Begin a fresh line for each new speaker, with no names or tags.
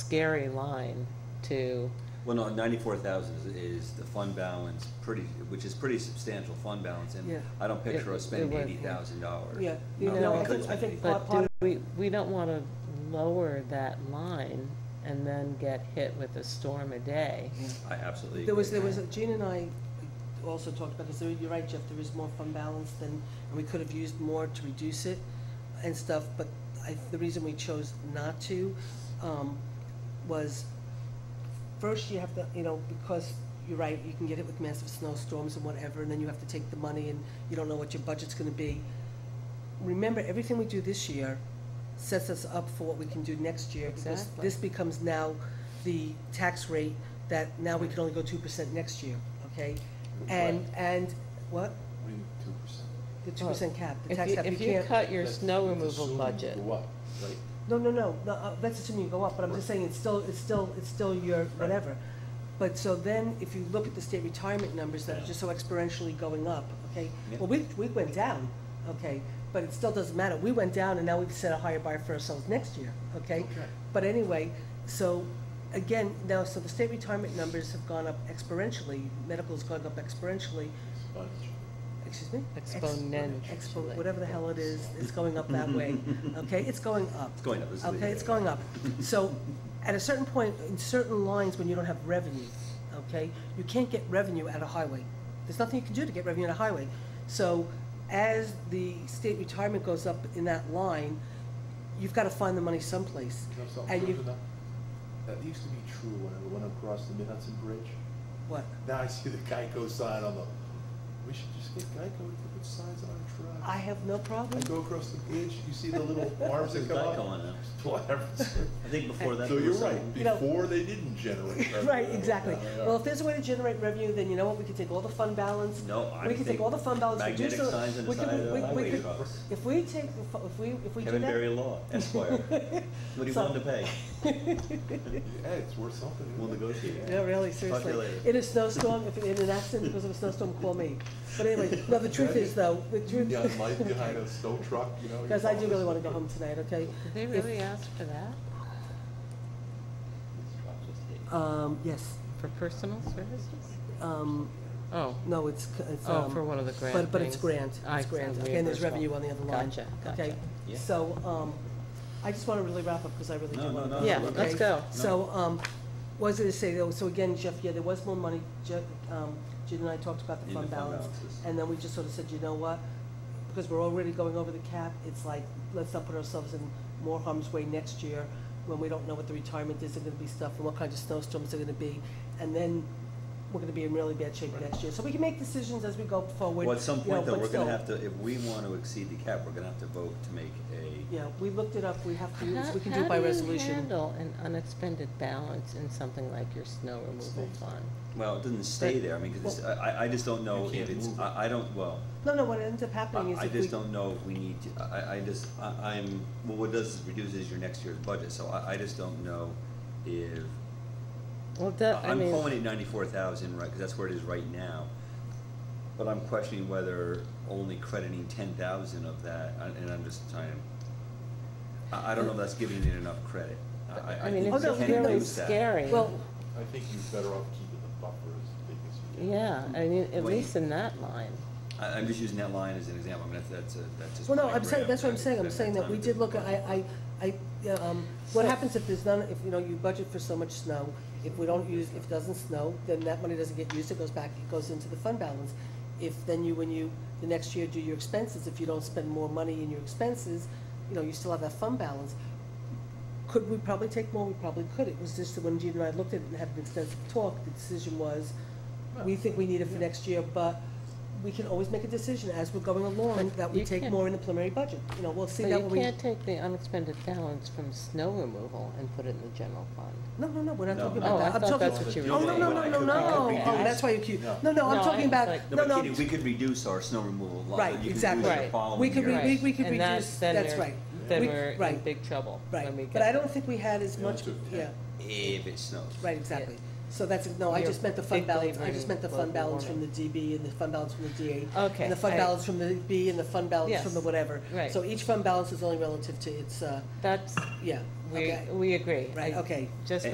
scary line to,
Well, no, ninety-four thousand is, is the fund balance, pretty, which is pretty substantial fund balance,
Yeah.
and I don't picture us
It- it
spending
would,
eighty
yeah.
thousand dollars.
Yeah, you
No,
know,
we
I
couldn't
think, I think part
but
part
do
of,
we, we don't wanna lower that line and then get hit with a storm a day.
I absolutely
there was,
agree.
there was, a- Gene and I also talked about, because you're right, Jeff, there is more fund balance than, and we could have used more to reduce it and stuff, but I, the reason we chose not to, um, was first you have to, you know, because you're right, you can get hit with massive snowstorms and whatever, and then you have to take the money and you don't know what your budget's gonna be. Remember, everything we do this year sets us up for what we can do next year. because
Exactly.
This becomes now the tax rate that now we can only go two percent next year, okay? And, and, what?
We need two percent.
The two percent cap, the
If
tax
you,
cap, you
if you
can't.
cut your snow removal budget,
What?
Like,
No, no, no, no, uh, that's assuming you go up, but I'm just saying, it's still, it's still, it's still your whatever. But so then, if you look at the state retirement numbers that are just so exponentially going up, okay?
Yeah.
Well, we, we went down, okay, but it still doesn't matter, we went down and now we've set a higher bar for ourselves next year, okay? But anyway, so, again, now, so the state retirement numbers have gone up exponentially, medical's gone up exponentially,
Bunch.
excuse me? Ex-
exponentially.
Expo, whatever the hell it is, it's going up that way, okay? It's going up.
It's going up, let's leave
Okay,
it
it's
at
going up. So, at a certain point, in certain lines, when you don't have revenue, okay, you can't get revenue out of highway. There's nothing you can do to get revenue out of highway. So, as the state retirement goes up in that line, you've gotta find the money someplace.
You know something,
And you,
Krishna? That used to be true when I went across the Minnetonka Bridge.
what?
Now I see the Geico sign on the, we should just get Geico to put signs on our truck.
I have no
I
problem.
go across the bridge, you see the little arms that
There's
come
Geico
up?
on it.
It's whatever.
I think before that.
So
there
you're
was
right,
something-
You know-
before they didn't generate revenue.
Right, exactly.
Now they are.
Well, if there's a way to generate revenue, then you know what, we could take all the fund balance.
No, I
We could take
think
all the fund balance. reduce
magnetic
the-
signs on the
we could-
side of the
we- we
highway
could-
trucks.
If we take, the fu- if we, if we do
Kevin Berry
that,
Law, Esquire. What do you
So-
want to pay?
Hey, it's worth something. isn't
We'll
it?
negotiate.
Yeah.
yeah, really,
you
seriously.
later.
In a snowstorm, if, in an accident because of a snowstorm, call me. But anyway, no, the truth is though, the truth,
Yeah, light behind a snow truck, you know.
guys, I do really wanna go home tonight, okay?
did they really ask for that?
Um, yes,
For personal services?
um,
Oh,
no, it's, c- it's,
oh,
um,
for one of the grant
But, but it's
things.
grant,
I-
it's grant,
the
okay, and there's
reimbursement.
revenue on the other line.
Gotcha,
Okay,
gotcha.
Yeah.
so, um, I just wanna really wrap up, because I really do
No, no,
wanna.
no,
go.
Yeah, we're
let's good. go.
So, um, was it to say though, so again, Jeff, yeah, there was more money, Jeff, um, Jim and I talked about the
In
fund
the fund
balance.
balances.
And then we just sort of said, you know what, because we're already going over the cap, it's like, let's not put ourselves in more harm's way next year when we don't know what the retirement is, there're gonna be stuff, and what kinds of snowstorms are gonna be, and then we're gonna be in really bad shape next year. So we can make decisions as we go forward.
Well, at some
you know,
point though,
but
we're gonna
still,
have to, if we want to exceed the cap, we're gonna have to vote to make a,
Yeah, we looked it up, we have to, do this.
How-
we can do it by
How do you
resolution.
handle an unexpended balance in something like your snow removal
Stays.
fund?
well, it doesn't stay there, I mean, 'cause it's- I, I- I just don't know
You
if
can't
it's,
move it.
I, I don't, well,
No, no, what ends up happening is
I I
if we.
just don't know if we need to, I, I just, I, I'm, well, what does is reduces your next year's budget, so I, I just don't know if,
Well, that, I
I'm
mean,
calling it ninety-four thousand, right, because that's where it is right now. But I'm questioning whether only crediting ten thousand of that, and and I'm just trying to, I, I don't know if that's giving it enough credit. I- I,
I
I
mean,
think
it's
we
just
it's
can
really
lose that.
scary.
Well,
I think you're better off keeping the buffer as big as you can.
Yeah, I mean, at
Wait.
least in that line.
I, I'm just using that line as an example, I mean, that's, that's a, that's just.
Well, no,
plain
I'm saying,
rap,
that's what
and
I'm
I
saying, I'm
think
saying that
time
we
to-
did look, at- I, I, I, yeah, um, what
So-
happens if there's none, if, you know, you budget for so much snow, if we don't use, if it doesn't snow, then that money doesn't get used, it goes back, it goes into the fund balance. If then you, when you, the next year do your expenses, if you don't spend more money in your expenses, you know, you still have that fund balance. Could we probably take more? We probably could. It was just that when Gene and I looked at it and had an extensive talk, the decision was, we think we need it for next year, but we can always make a decision as we're going along
But
that we
you
take
can't-
more in the preliminary budget. You know, we'll see
But
that
you
when we.
can't take the unexpended balance from snow removal and put it in the general fund.
No, no, no, we're not
No,
talking
no.
about
Oh,
that.
I
I'm
thought
talking-
that's what you were
Oh, no,
doing.
no,
When
no,
I
no,
could-
no.
we could
Oh,
reduce-
that's why you keep,
No.
no, no, I'm
No,
talking
I was
about,
like-
No,
no,
but
no.
Kitty, we could reduce our snow removal line.
Right,
You can do it
exactly.
the
Right.
following
We could
year.
re-
Right,
we could
and that's-
reduce-
then
that's
we're-
right.
Then
We-
we're in
right.
big trouble when we
Right,
get.
but I don't think we had as
Yeah,
much,
it's okay.
yeah,
If it snows.
right, exactly. So that's, no, I
Your
just meant the fund
big
balance, I
believer
just
in
meant the fund
global
balance from the
warming.
DB and the fund balance from the DA.
Okay,
And the fund
I-
balance from the B and the fund balance from the
Yes,
whatever.
right.
So each fund balance is only relative to its, uh,
That's,
yeah,
we,
okay,
we agree.
right,
I-
okay.
Just